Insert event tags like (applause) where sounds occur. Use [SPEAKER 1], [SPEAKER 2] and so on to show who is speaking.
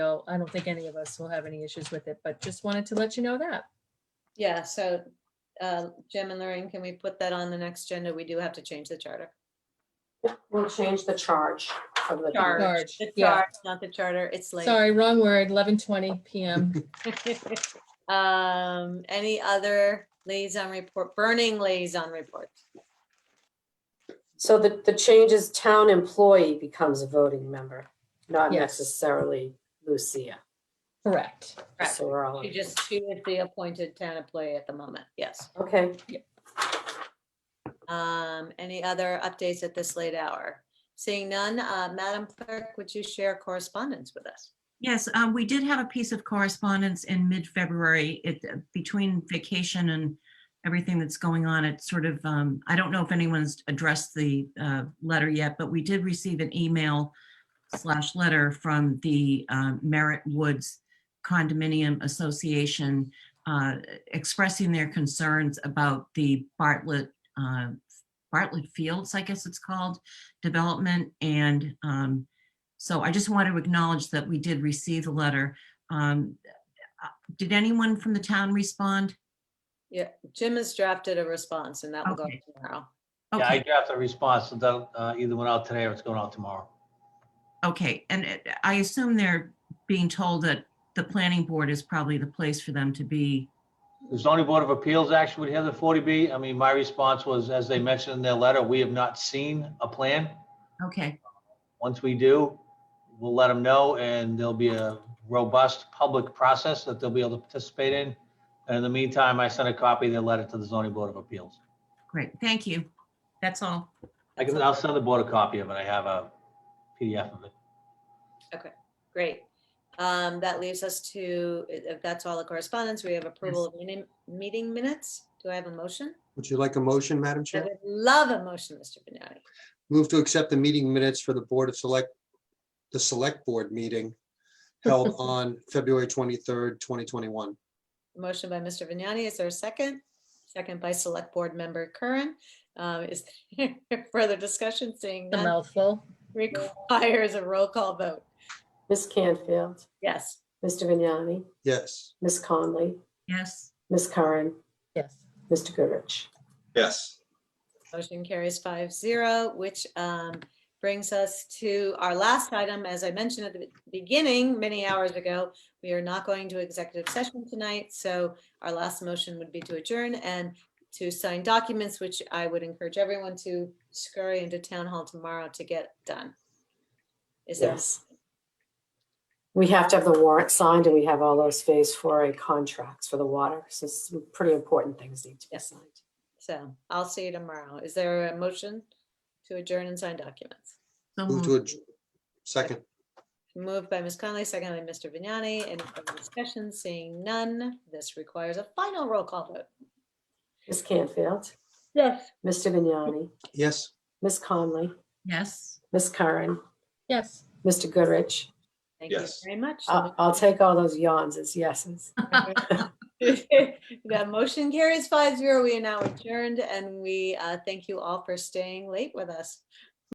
[SPEAKER 1] So I don't think any of us will have any issues with it, but just wanted to let you know that.
[SPEAKER 2] Yeah, so uh, Jim and Lorraine, can we put that on the next agenda? We do have to change the charter.
[SPEAKER 3] We'll change the charge from the.
[SPEAKER 2] Charge.
[SPEAKER 1] Charge,
[SPEAKER 2] The
[SPEAKER 1] yeah.
[SPEAKER 2] charge, not the charter, it's late.
[SPEAKER 1] Sorry, wrong word, 11:20 PM.
[SPEAKER 2] (laughs) Um, any other liaison report, burning liaison report?
[SPEAKER 3] So the, the change is town employee becomes a voting member, not
[SPEAKER 1] Yes.
[SPEAKER 3] necessarily Lucia.
[SPEAKER 1] Correct.
[SPEAKER 2] Correct.
[SPEAKER 3] So we're all,
[SPEAKER 2] She
[SPEAKER 3] on-
[SPEAKER 2] just, she is the appointed town employee at the moment, yes.
[SPEAKER 3] okay,
[SPEAKER 2] Um, any other updates at this late hour? Seeing none, uh, Madam Clerk, would you share correspondence with us?
[SPEAKER 4] Yes, um, we did have a piece of correspondence in mid-February. It, uh, between vacation and everything that's going on, it sort of, um, I don't know if anyone's addressed the, uh, letter yet, but we did receive an email slash letter from the, um, Merritt Woods Condominium Association, uh, expressing their concerns about the Bartlett, uh, Bartlett Fields, I guess it's called, development and, um, so I just want to acknowledge that we did receive the letter. Um, uh, Did anyone from the town respond?
[SPEAKER 2] Yeah, Jim has drafted a response and that will go
[SPEAKER 4] Okay.
[SPEAKER 2] tomorrow.
[SPEAKER 5] Yeah, I
[SPEAKER 4] Okay,
[SPEAKER 5] drafted a response so that uh, either went out today or it's going out tomorrow.
[SPEAKER 4] okay, and it- I assume they're being told that the planning board is probably the place for them to be.
[SPEAKER 5] The zoning board of appeals actually would have the 40B. I mean, my response was, as they mentioned in their letter, we have not seen a plan.
[SPEAKER 4] Okay,
[SPEAKER 5] Once we do, we'll let them know and there'll be a robust public process that they'll be able to participate in. And in the meantime, I sent a copy of their letter to the zoning board of appeals.
[SPEAKER 4] great, thank you. That's all.
[SPEAKER 5] I can, I'll send the board a copy of it. I have a PDF of it.
[SPEAKER 2] Great. Um, that leaves us to, if that's all the correspondence, we have approval of meeting- meeting minutes. Do I have a motion?
[SPEAKER 6] Would you like a motion, Madam
[SPEAKER 2] I
[SPEAKER 6] Chair?
[SPEAKER 2] would love a motion, Mr. Vignani.
[SPEAKER 6] Move to accept the meeting minutes for the Board of Select, the Select Board meeting held on February 23rd, 2021.
[SPEAKER 2] Motion by Mr. Vignani. Is there a second? Second by Select Board Member Curran. Um, is (laughs) there further discussion? Seeing
[SPEAKER 1] The
[SPEAKER 2] none
[SPEAKER 1] mouthful.
[SPEAKER 2] requires a roll call vote.
[SPEAKER 3] Miss Canfield,
[SPEAKER 2] Yes.
[SPEAKER 3] Mr. Vignani,
[SPEAKER 6] Yes,
[SPEAKER 3] Miss Conley,
[SPEAKER 4] Yes,
[SPEAKER 3] Miss Curran,
[SPEAKER 1] Yes.
[SPEAKER 3] Mr. Goodrich.
[SPEAKER 7] Yes,
[SPEAKER 2] Motion carries five zero, which um, brings us to our last item. As I mentioned at the beginning, many hours ago, we are not going to executive session tonight, so our last motion would be to adjourn and to sign documents, which I would encourage everyone to scurry into town hall tomorrow to get done. Is there,
[SPEAKER 3] Yes. We have to have the warrant signed and we have all those phase four A contracts for the water. So some pretty important things need to be
[SPEAKER 2] Yes.
[SPEAKER 3] signed.
[SPEAKER 2] so I'll see you tomorrow. Is there a motion to adjourn and sign documents?
[SPEAKER 4] so
[SPEAKER 6] move to a
[SPEAKER 4] moved.
[SPEAKER 6] second.
[SPEAKER 2] Moved by Ms. Conley, seconded by Mr. Vignani. Any further discussion? Seeing none, this requires a final roll call vote.
[SPEAKER 3] Miss Canfield,
[SPEAKER 2] Yes.
[SPEAKER 3] Mr. Vignani,
[SPEAKER 6] Yes.
[SPEAKER 3] Miss Conley,
[SPEAKER 4] yes.
[SPEAKER 3] Miss Curran,
[SPEAKER 1] Yes.
[SPEAKER 3] Mr. Goodrich.
[SPEAKER 2] Thank you
[SPEAKER 7] Yes.
[SPEAKER 2] very much. (laughs)
[SPEAKER 3] I'll, I'll take all those yawns as yeses.
[SPEAKER 2] That motion carries five zero. We are now adjourned and we uh, thank you all for staying late with us.